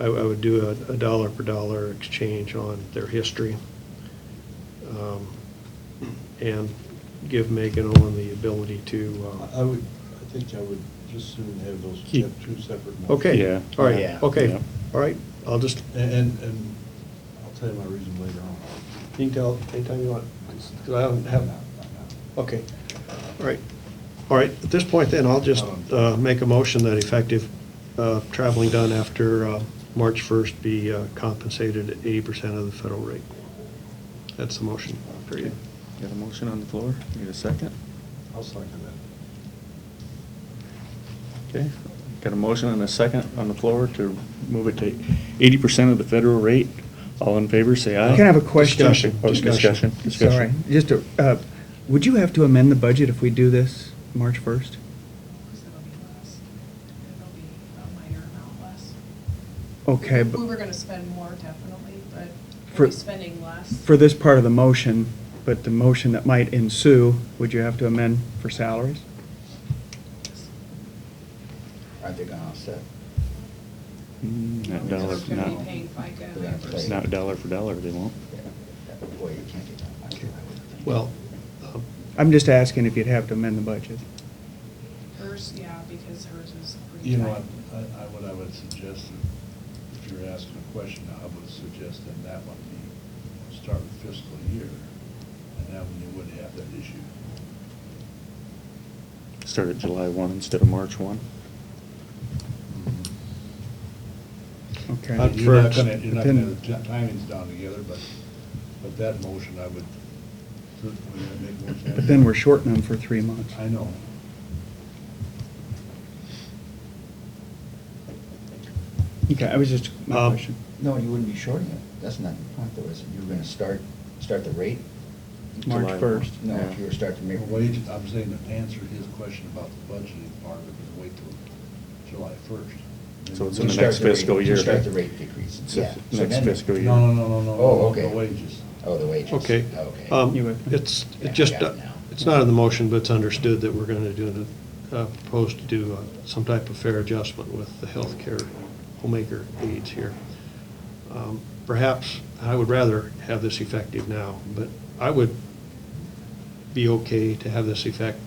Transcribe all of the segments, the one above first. I, I would do a, a dollar per dollar exchange on their history. um, And give Megan Owen the ability to, I- uh, I would, I think I would just soon have those Keep- kept two separate. motions. okay, Yeah. all right, Yeah. okay, Yeah. all right, I'll just, And, and- and I'll tell you my reason later on. you can tell anytime you want, because I don't have, okay, all right. All right, at this point then, I'll just uh, make a motion that effective uh, traveling done after uh, March 1st be uh, compensated at 80% of the federal rate. That's the motion, period. Got a motion on the floor? Need a second? I'll second that. Okay. Got a motion and a second on the floor to move it to eighty percent of the federal rate. All in favor, say aye. I can have a question. Discussion, Oh, Uh, discussion, Sorry, discussion. just, a- uh, would you have to amend the budget if we do this March 1st? Because it'll be less. It'll be a minor amount less. Okay, We were but gonna spend more definitely, but For- we're spending less. for this part of the motion, but the motion that might ensue, would you have to amend for salaries? I think I'll set. Mm, Not dollar, Because for They're gonna be not, paying FICA. They're gonna pay. reimbursement. not dollar for dollar, they won't. Yeah, that- Boy, you can't get that. I- I wouldn't think. Well, um, I'm just asking if you'd have to amend the budget. Hers, yeah, because hers is pretty tight. You know, what, I, I, what I would suggest, if you're asking a question, I would suggest that that one be, start with fiscal year, and that one you wouldn't have that issue. Start at July one instead of March one. Okay. Not You're not first, gonna, you're not but gonna, then- the ti- timing's down together, but, but that motion, I would, would that make more sense? But then we're shorting them for three months. I know. Okay, I was just, my Um, question. No, you wouldn't be shorting it. That's not the point though, is it? You're gonna start, start the rate? March July 1st. No, Yeah. if you were starting Well, to. Wait, I'm saying to answer his question about the budgeting part of it, is wait till July first. So it's in You the start next the rate- fiscal you year. Start the rate decrease. It's Yeah. the So Next then- fiscal year. No, no, no, no, no. Oh, okay. The wages. Oh, the wages. Okay. Okay. Um, You with me? It's, Yeah, I it just, got it now. it's not in the motion, but it's understood that we're going to do, the uh, propose to do uh, some type of fair adjustment with the healthcare homemaker aides here. Um, Perhaps, I would rather have this effective now, but I would be okay to have this effect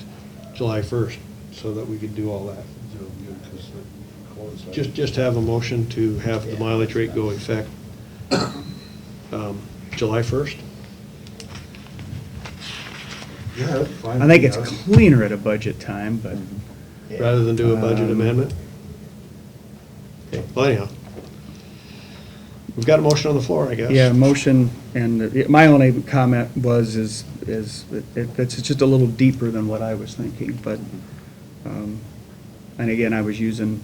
July 1st so that we could do all that. So, you know, 'cause the quotes, I- Just, just have a motion to have the Yeah. mileage rate go effect um, July 1st? Yeah, that's fine. I think it's Yeah. cleaner at a budget time, but Yeah. rather than do a budget Um, amendment? Okay, well anyhow. We've got a motion on the floor, I guess. Yeah, motion, and the- my only comment was, is, is, it- it's just a little deeper than what I was thinking, but, um, and again, I was using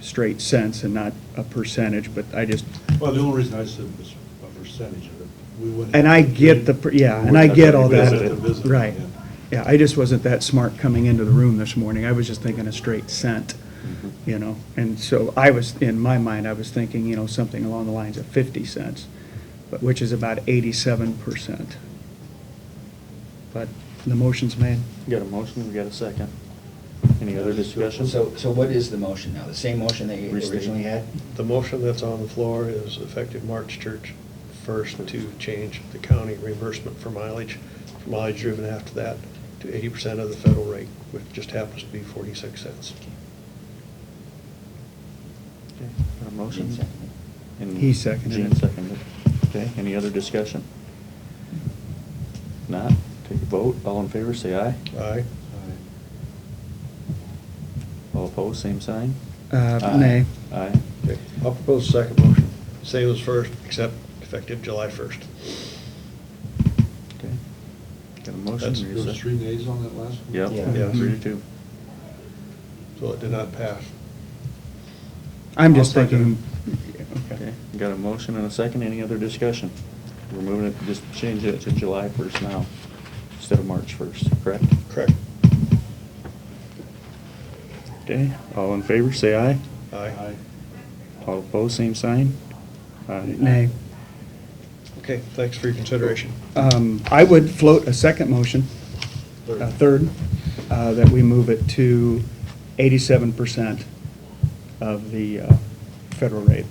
straight cents and not a percentage, but I just, Well, the only reason I said was a percentage of it. We wouldn't. and I have to get change- the, per- yeah, and We're I not get gonna all that. revisit it. Revisit it, Right. yeah. Yeah, I just wasn't that smart coming into the room this morning. I was just thinking a straight cent, you know? And so I was, in my mind, I was thinking, you know, something along the lines of 50 cents, but which is about 87%. But the motion's made. Got a motion, we got a second. Any other discussion? So, so what is the motion now? The same motion that you Restate. originally had? The motion that's on the floor is effective March church first to change the county reimbursement for mileage, for mileage driven after that, to eighty percent of the federal rate, which just happens to be forty-six cents. Okay, Got a motion? Jean seconded. And He seconded Jean it. seconded. Okay, any other discussion? Not, take a vote, all in favor, say aye. Aye? All opposed, same sign? Uh, Aye. Nay. Aye. Okay. I'll propose a second motion. Same as first, except effective July first. Okay. Got a motion? That's- Need a There was sec- three nays on that last one? Yep, Yeah. three Mm-hmm. to two. So it did not pass. I'm just I'll second thinking, Okay, got a motion and a second, any other discussion? We're moving it, just change it to July first now, instead of March first, correct? Correct. Okay, all in favor, say aye. Aye. All opposed, same sign? Aye. nay. Okay, thanks for your consideration. Um, I would float a second motion, a third, uh, that we move it to eighty-seven percent of the uh, federal rate.